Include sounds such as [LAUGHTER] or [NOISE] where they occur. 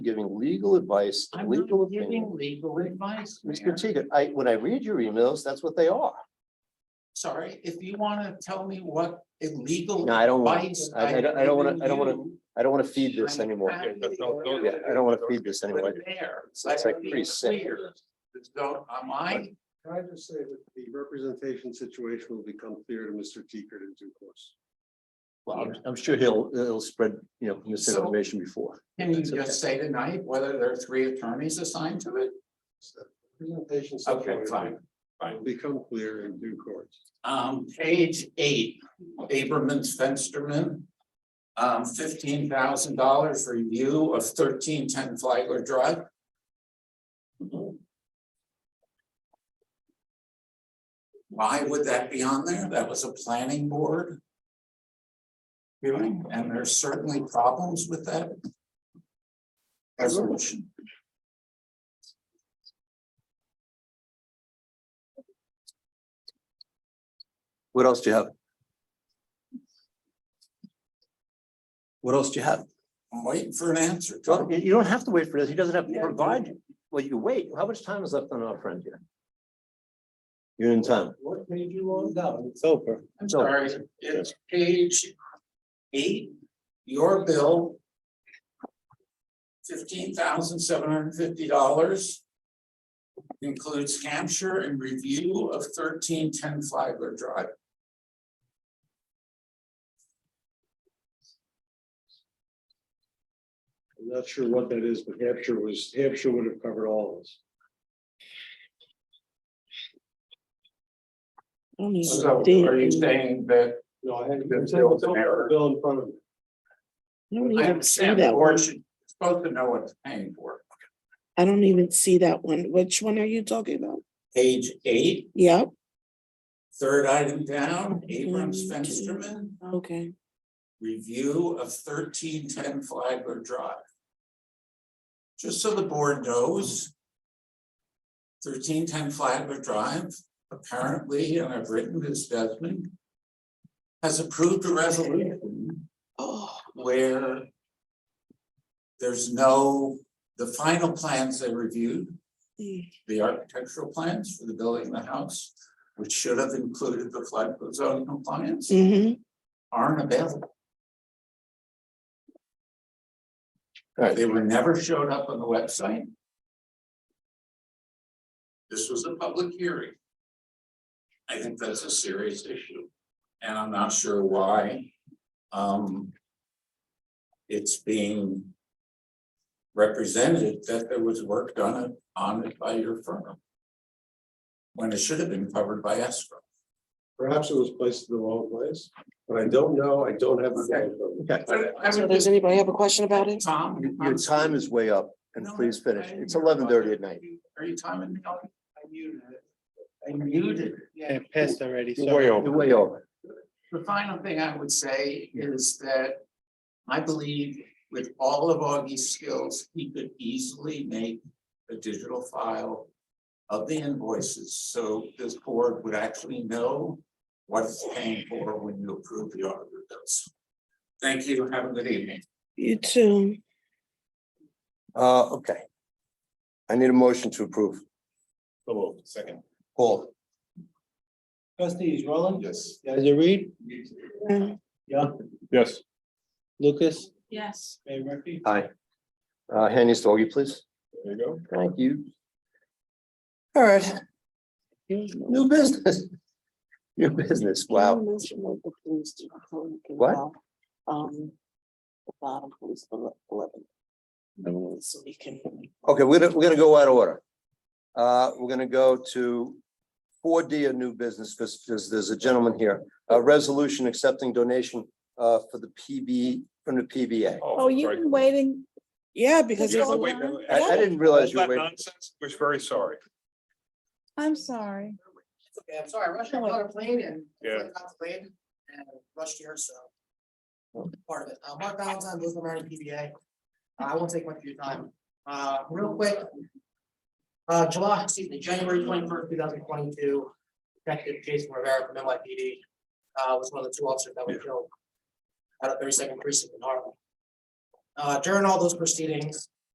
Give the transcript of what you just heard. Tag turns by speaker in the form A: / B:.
A: giving legal advice,
B: I'm
A: legal
B: not giving
A: opinion.
B: legal advice, Mayor.
A: Mr. Teeger, I, when I read your emails, that's what they are.
B: Sorry, if you want to tell me what illegal
A: No, I don't want-
B: advice.
A: I- I don't- I don't wanna- I don't wanna I don't want to feed this
B: I'm
A: anymore.
B: happy
A: Yeah,
B: to go there.
A: I don't want to feed this anymore.
B: There.
A: It's like pretty sick.
B: So am I,
C: Can I just say that the representation situation will become clear to Mr. Teeger in due course?
A: Well, I'm, I'm sure he'll, he'll spread, you know, misinformation before.
B: can you
A: That's okay.
B: just say tonight whether there are three attorneys assigned to it?
C: Presentation
B: Okay,
C: situation
B: fine.
C: will become clear in due course.
B: Um, page eight, Aberman's Fensterman. Um, fifteen thousand dollars review of thirteen ten Flagler Drive. Why would that be on there? That was a planning board. Hearing, and there's certainly problems with that. Resolution.
A: What else do you have? What else do you have?
B: I'm waiting for an answer.
A: Well, You, you don't have to wait for this. He doesn't have to
B: Yeah.
A: provide you. Well, you wait. How much time is left on our friend here? You're in time.
C: What made you want down?
A: It's over.
B: I'm
A: So-
B: sorry, it's page eight, your bill. Fifteen thousand seven hundred and fifty dollars. Includes capture and review of thirteen ten Flagler Drive.
C: I'm not sure what that is, but Hampshire was, Hampshire would have covered all of this.
B: So are you saying that
C: No, I had.
B: There's still an error.
C: Bill in front of me.
D: I don't
B: I
D: even see
B: understand the
D: that
B: board
D: one.
B: should, supposed to know what it's paying for?
D: I don't even see that one. Which one are you talking about?
B: Page eight,
D: Yep,
B: third item down, Abrams
D: One, two.
B: Fensterman,
D: okay.
B: review of thirteen ten Flagler Drive. Just so the board knows. Thirteen ten Flagler Drive, apparently, and I've written this Desmond. Has approved a resolution
D: Oh,
B: where. There's no, the final plans they reviewed,
D: mm,
B: the architectural plans for the building and the house. Which should have included the flood zone compliance
D: mhm.
B: aren't available.
A: Alright.
B: They were never showed up on the website. This was a public hearing. I think that's a serious issue, and I'm not sure why, um. It's being. Represented that there was work done it- on it by your firm. When it should have been covered by escrow.
C: Perhaps it was placed in the wrong place, but I don't know. I don't have. the
A: Okay.
B: But I
D: So
B: would
D: does
B: just-
D: anybody have a question about it?
B: Tom.
A: Your- Your time is way up and
B: No,
A: please
B: I-
A: finish.
B: I
A: It's
B: didn't
A: eleven thirty at
B: hear
A: night.
B: about that. Are you timing me? out? I muted it. I muted it.
E: Yeah, passed already.
A: You're
E: sorry.
A: way over. You're way over.
B: The final thing I would say is that I believe with all of Augie's skills, he could easily make a digital file of the invoices, so this board would actually know what it's paying for when you approve the auditor bills. Thank you. Have a good evening.
D: You too.
A: Uh, okay. I need a motion to approve.
C: second.
A: Paul,
E: Trustees, Roland,
C: Yes.
E: Guys, Reed,
D: Yeah.
E: Young,
C: Yes.
E: Lucas,
D: Yes.
E: Mayor Murphy.
A: Aye. Uh, hand these to Augie, please.
C: There you go.
A: Thank you. All right, new business. [LAUGHS] New business, wow. What?
D: What? Um. The bottom police ele- eleven. So we can.
A: Okay, we're gonna, we're gonna go out of order. Uh, we're gonna go to four D, a new business, because there's, there's a gentleman here, a resolution accepting donation uh, for the PB, from the PBA.
F: Oh, you've been waiting.
D: Yeah, because.
F: Did you
D: it's
F: all
D: all-
F: wait?
A: I, I didn't realize you were waiting.
C: We're very sorry.
F: I'm sorry.
B: Okay, I'm sorry, I rushed out on a plane and.
C: Yeah.
B: Got the plane and rushed here, so. Part of it, uh, Mark Valentine, Louisville Marine PBA. Uh, I won't take much of your time, uh, real quick. Uh, July, excuse me, January twenty first, two thousand twenty two, Detective Jason Rivera from NYPD. Uh, was one of the two officers that were killed. Out of thirty second precinct in Harlem. Uh, during all those proceedings,